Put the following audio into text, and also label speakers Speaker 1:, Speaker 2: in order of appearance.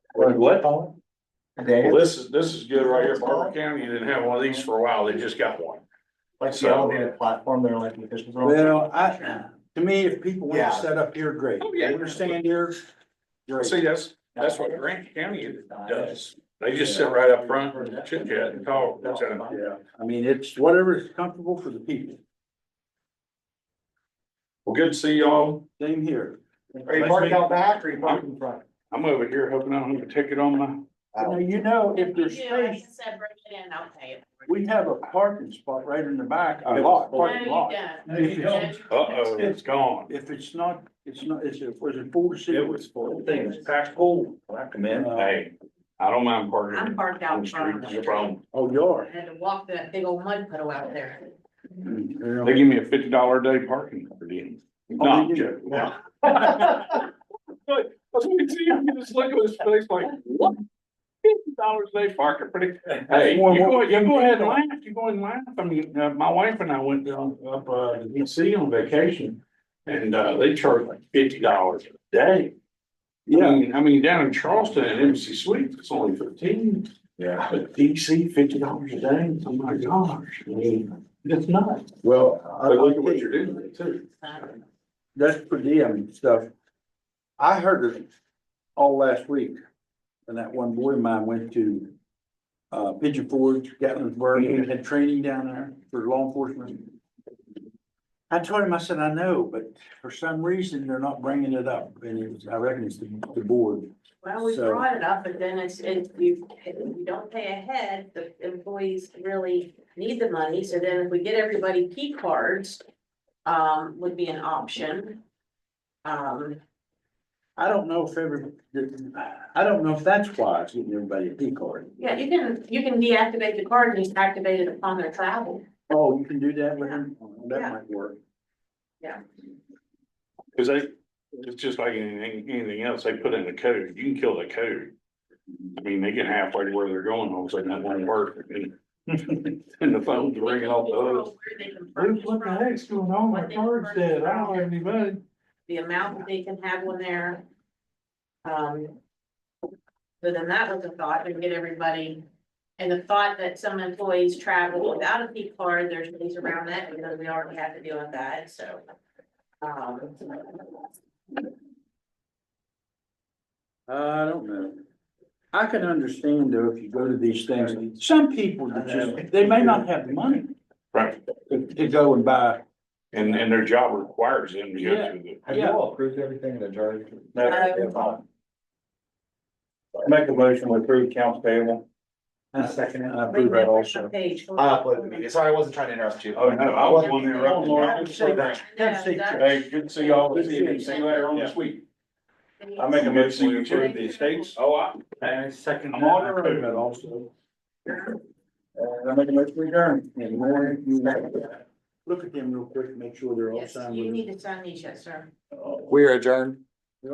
Speaker 1: What?
Speaker 2: Well,
Speaker 3: They,
Speaker 2: this is, this is good right here. Barber County didn't have one of these for a while. They just got one.
Speaker 3: like the elevated platform, they're elected officials. are on.
Speaker 1: Well, I, to me, if people want
Speaker 3: Yeah.
Speaker 1: to set up here, great.
Speaker 2: Oh,
Speaker 1: They
Speaker 2: yeah.
Speaker 1: understand here. Great.
Speaker 2: See, that's, that's what Grant County does. They just sit right up front, chit chat and talk. That's it.
Speaker 1: Yeah, I mean, it's whatever is comfortable for the people.
Speaker 2: Well, good to see y'all.
Speaker 1: Same here.
Speaker 3: Are you parking out back or are you parking in front?
Speaker 2: I'm over here hoping I don't have a ticket on my,
Speaker 1: Now, you know, if
Speaker 4: You
Speaker 1: there's
Speaker 4: do, like I
Speaker 1: space,
Speaker 4: said, bring it in, I'll pay it.
Speaker 1: we have a parking spot right in the back.
Speaker 2: A lot.
Speaker 4: No,
Speaker 1: Parking
Speaker 4: you
Speaker 1: lot.
Speaker 4: don't.
Speaker 1: No, you don't.
Speaker 4: No, you
Speaker 2: uh-oh, it's gone.
Speaker 1: If it's not, it's not, is it, was it four Uh, to six?
Speaker 5: It was full,
Speaker 1: Uh,
Speaker 5: thing was packed full, I commend.
Speaker 2: Hey, I don't mind parking.
Speaker 4: I'm parked out
Speaker 2: on the street,
Speaker 4: front.
Speaker 2: No problem.
Speaker 1: Oh, you
Speaker 4: I
Speaker 1: are.
Speaker 4: had to walk to that big old mud puddle out there.
Speaker 2: They give me a fifty dollar a day parking for them. No,
Speaker 1: Oh,
Speaker 2: I'm
Speaker 1: they do?
Speaker 2: joking. No. But that's what you see, I mean, just look at his face like, what? Fifty dollars a day parking for the, hey, you go, you go ahead and laugh, you go ahead and laugh. I mean, uh, my wife and I went down up, uh, to DC on vacation. And, uh, they charge like fifty dollars a day. I
Speaker 1: Yeah,
Speaker 2: mean, I mean, down in Charleston at MC Suites, it's only fifteen.
Speaker 5: Yeah.
Speaker 2: But DC, fifty dollars a day, oh my gosh, I mean, that's nuts.
Speaker 1: well, I-
Speaker 2: But look at
Speaker 1: I
Speaker 2: what
Speaker 1: think
Speaker 2: you're doing there too.
Speaker 1: that's per diem stuff. I heard it all last week. And that one boy of mine went to uh Pigeon Forge, Gatlinburg, and had training down there for law enforcement. I told him, I said, I know, but for some reason, they're not bringing it up. And it was, I reckon it's the, the board.
Speaker 4: Well, we
Speaker 1: So-
Speaker 4: brought it up, but then it's, it, you, if you don't pay ahead, the employees really need the money, so then if we get everybody key cards. Um, would be an option. Um,
Speaker 1: I don't know if every, I don't know if that's why it's getting everybody a P card.
Speaker 4: yeah, you can, you can deactivate the card and just activate it upon their travel.
Speaker 1: Oh, you can do that with him? That might work.
Speaker 2: Cause they, it's just like anything, anything else, they put in a code, you can kill the code. I mean, they get halfway to where they're going, all of a sudden that won't work, and, and the phone's ringing off the hook.
Speaker 4: Where they can purchase from,
Speaker 2: heck's going on,
Speaker 4: My card's dead. I don't have
Speaker 2: any money.
Speaker 4: The amount that they can have on there. Um. So then that was a thought, and get everybody, and the thought that some employees travel without a P card, there's ways around that, because we already have to deal with that, so. Um,
Speaker 1: I don't know. I can understand though, if you go to these things, some people that just, they may not have the money
Speaker 2: Right,
Speaker 1: to to go and buy.
Speaker 2: and, and their job requires them to go
Speaker 1: Yeah.
Speaker 2: through the.
Speaker 5: Have you all approved everything in the jury?
Speaker 4: No.
Speaker 5: Make a motion to approve accounts payable.
Speaker 1: I
Speaker 5: second it.
Speaker 1: approve that also.
Speaker 4: Page. hold
Speaker 5: I
Speaker 4: on.
Speaker 5: uploaded the meeting, sorry, I wasn't trying to interrupt you.
Speaker 2: Oh, no, I was one
Speaker 1: Oh, Lord,
Speaker 2: interrupting.
Speaker 1: have a seat. Have a seat.
Speaker 2: Hey, good to see y'all this evening, see you later on this week.
Speaker 5: I make a motion to approve the estates.
Speaker 2: Oh, I,
Speaker 5: And second.
Speaker 2: I'm on
Speaker 1: I
Speaker 2: it.
Speaker 1: approve that also.
Speaker 5: And I make a motion to adjourn. And more, you know.
Speaker 1: Look at them real quick, make sure they're all
Speaker 4: Yes,
Speaker 1: signed
Speaker 4: you
Speaker 1: with.
Speaker 4: need to sign these, yes, sir.
Speaker 5: Oh.
Speaker 6: We are adjourned.